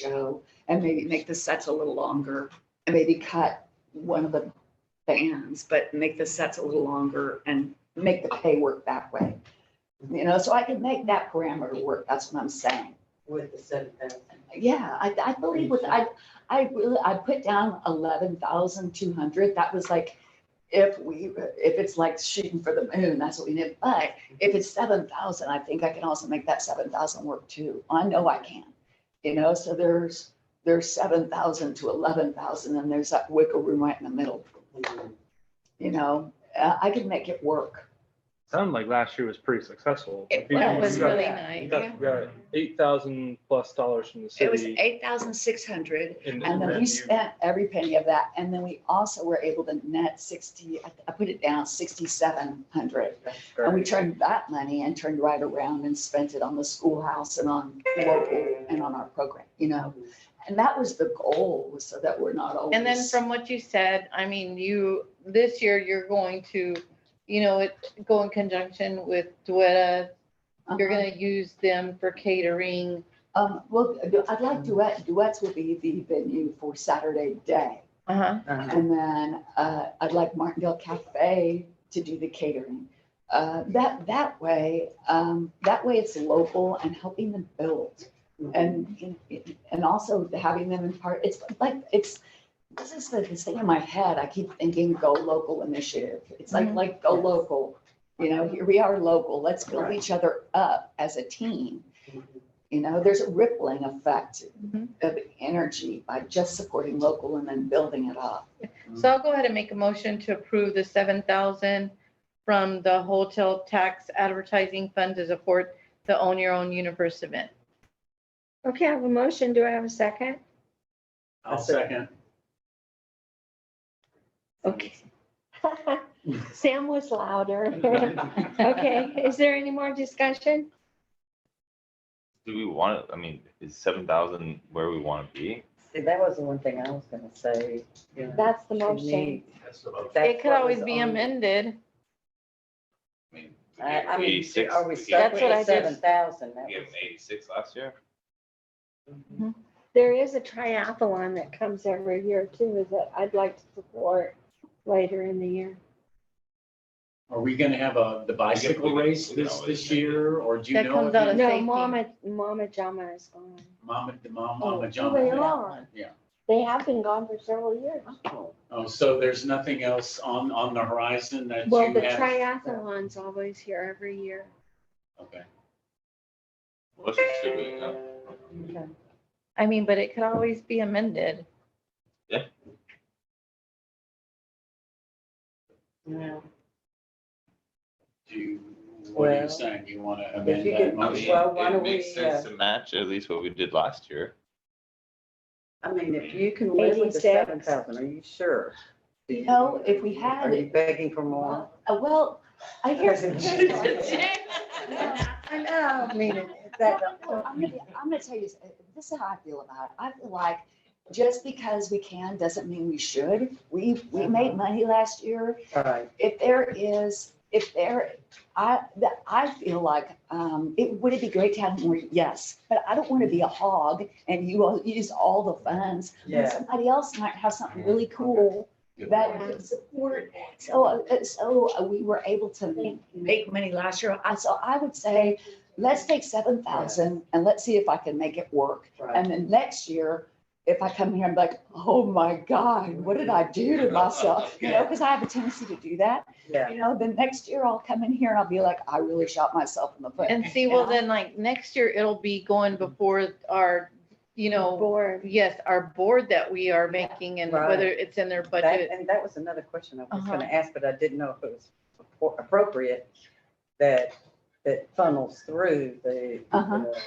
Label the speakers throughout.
Speaker 1: show and maybe make the sets a little longer and maybe cut one of the bands, but make the sets a little longer and make the pay work that way. You know, so I could make that parameter work. That's what I'm saying.
Speaker 2: with the seven thousand.
Speaker 1: Yeah, I, I believe with, I, I really, I put down eleven thousand two hundred. That was like, if we, if it's like shooting for the moon, that's what we did. But if it's seven thousand, I think I can also make that seven thousand work too. I know I can. You know, so there's, there's seven thousand to eleven thousand and there's that wiggle room right in the middle, you know? Uh, I can make it work.
Speaker 3: Sounded like last year was pretty successful.
Speaker 1: It
Speaker 3: You-
Speaker 1: was.
Speaker 3: you
Speaker 1: was
Speaker 3: got-
Speaker 1: really
Speaker 3: You
Speaker 4: nice.
Speaker 3: got, you got eight thousand plus dollars from the
Speaker 1: It was
Speaker 3: city.
Speaker 1: eight thousand six hundred
Speaker 3: in-
Speaker 1: And then
Speaker 3: in
Speaker 1: we
Speaker 3: you-
Speaker 1: spent every penny of that, and then we also were able to net sixty, I- I put it down sixty-seven hundred. And we turned that money and turned right around and spent it on the schoolhouse and on local and on our program, you know? And that was the goal, was so that we're not always.
Speaker 4: And then from what you said, I mean, you, this year, you're going to, you know, it, go in conjunction with Duetta. You're
Speaker 1: Uh-huh.
Speaker 4: gonna use them for catering.
Speaker 1: Um, well, I'd like duet, duets will be the venue for Saturday day.
Speaker 4: Uh-huh.
Speaker 1: And then uh, I'd like Martindale Cafe to do the catering. Uh, That, that way, um, that way it's local and helping them build. And, and also having them in part, it's like, it's, this is the this thing in my head, I keep thinking go local initiative. It's like,
Speaker 4: Mhm.
Speaker 1: like go local, you know, here we are local, let's build each other up as a team. You know, there's a rippling effect
Speaker 4: Mhm.
Speaker 1: of energy by just supporting local and then building it up.
Speaker 4: So I'll go ahead and make a motion to approve the seven thousand from the hotel tax advertising fund to support the Own Your Own Universe event.
Speaker 5: Okay, I have a motion. Do I have a second?
Speaker 6: I'll second.
Speaker 5: Okay. Sam was louder. Okay, is there any more discussion?
Speaker 7: Do we want to, I mean, is seven thousand where we want to be?
Speaker 2: See, that was the one thing I was gonna say. you know,
Speaker 5: That's the
Speaker 2: to
Speaker 5: motion.
Speaker 2: me,
Speaker 6: That's the motion.
Speaker 2: that's
Speaker 4: It could
Speaker 2: what
Speaker 4: always
Speaker 2: was
Speaker 4: be
Speaker 2: on-
Speaker 4: amended.
Speaker 7: I mean, we
Speaker 2: I,
Speaker 7: gave
Speaker 2: I
Speaker 7: them
Speaker 2: mean,
Speaker 7: 86
Speaker 2: are we
Speaker 7: we
Speaker 2: stuck
Speaker 7: gave
Speaker 4: That's what I
Speaker 2: with
Speaker 4: did.
Speaker 2: seven thousand?
Speaker 7: them- We gave them eighty-six last year.
Speaker 5: There is a triathlon that comes every year too, that I'd like to support later in the year.
Speaker 6: Are we gonna have a, the bicycle race this, this year, or do you
Speaker 4: That
Speaker 6: know?
Speaker 4: comes
Speaker 6: if
Speaker 4: out
Speaker 6: you-
Speaker 4: of-
Speaker 5: No,
Speaker 4: safety.
Speaker 5: Mama, Mama Jama is gone.
Speaker 6: Mama, the mom,
Speaker 5: Oh,
Speaker 6: mama
Speaker 5: They
Speaker 6: John.
Speaker 5: are.
Speaker 6: Yeah.
Speaker 5: They have been gone for several years.
Speaker 6: Oh, so there's nothing else on, on the horizon that you
Speaker 5: Well, the
Speaker 6: have?
Speaker 5: triathlon's always here every year.
Speaker 6: Okay.
Speaker 7: What should we, uh,
Speaker 4: I mean, but it could always be amended.
Speaker 6: Do you, what are
Speaker 2: Well,
Speaker 6: you saying? Do you wanna
Speaker 2: if
Speaker 6: amend
Speaker 2: you
Speaker 6: that
Speaker 2: could-
Speaker 7: I
Speaker 2: Well,
Speaker 7: mean,
Speaker 6: motion?
Speaker 2: why
Speaker 7: it
Speaker 2: don't
Speaker 7: makes
Speaker 2: we,
Speaker 7: sense
Speaker 2: uh,
Speaker 7: to match at least what we did last year.
Speaker 2: I mean, if you can live with the
Speaker 5: 86.
Speaker 2: seven thousand, are you sure? Do you-
Speaker 1: No, if we had
Speaker 2: Are you
Speaker 1: it-
Speaker 2: begging for more?
Speaker 1: Uh, Well, I hear.
Speaker 2: I know, I mean, it's that.
Speaker 1: Well, I'm gonna, I'm gonna tell you, uh, this is how I feel about it. I feel like just because we can doesn't mean we should. We,
Speaker 2: Uh-huh.
Speaker 1: we made money last year.
Speaker 2: All right.
Speaker 1: If there is, if there, I, that- I feel like, um, it, would it be great to have more? Yes, but I don't want to be a hog and you all use all the funds. when
Speaker 2: Yeah.
Speaker 1: Somebody else might have something really cool
Speaker 6: Good
Speaker 1: that
Speaker 6: point.
Speaker 1: could support. So, uh, so we were able to make money last year. I, so I would say, let's take seven thousand and let's see if I can make it work.
Speaker 2: Right.
Speaker 1: And then next year, if I come here, I'm like, oh my God, what did I do to myself? You know, because I have a tendency to do that.
Speaker 2: Yeah.
Speaker 1: You know, then next year I'll come in here and I'll be like, I really shot myself in the foot.
Speaker 4: And see, well,
Speaker 1: Yeah.
Speaker 4: then like next year, it'll be going before our, you know,
Speaker 5: Board.
Speaker 4: yes, our board that we are making and
Speaker 2: Right.
Speaker 4: whether it's in their budget.
Speaker 2: That- And that was another question I was
Speaker 4: Uh-huh.
Speaker 2: gonna ask, but I didn't know if it was appro- appropriate that, that funnels through the,
Speaker 1: Uh-huh.
Speaker 2: the-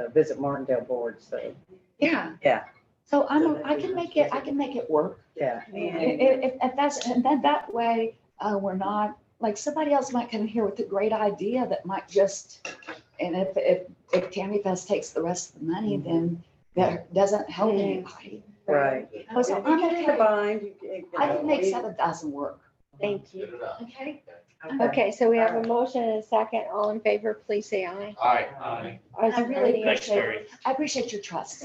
Speaker 2: the Visit Martindale Board, so,
Speaker 1: Yeah.
Speaker 2: Yeah.
Speaker 1: So I'm, I can make it, I can make it work.
Speaker 2: yeah.
Speaker 1: If, if- if that's, and then that way, uh, we're not, like, somebody else might come here with a great idea that might just, and if, if, if Tammy Fest takes the rest of the money, then that doesn't help anybody.
Speaker 2: Right.
Speaker 1: Oh, so
Speaker 2: If you
Speaker 1: I'm
Speaker 2: can
Speaker 1: okay.
Speaker 2: combine, you can- you
Speaker 1: I
Speaker 2: know,
Speaker 1: can make
Speaker 2: we-
Speaker 1: seven thousand work.
Speaker 5: Thank you.
Speaker 1: Okay.
Speaker 5: Okay, so we have a motion and a second. All in favor, please say aye.
Speaker 6: All right.
Speaker 2: Aye.
Speaker 1: I really
Speaker 5: Are you-
Speaker 1: appreciate, I appreciate your trust.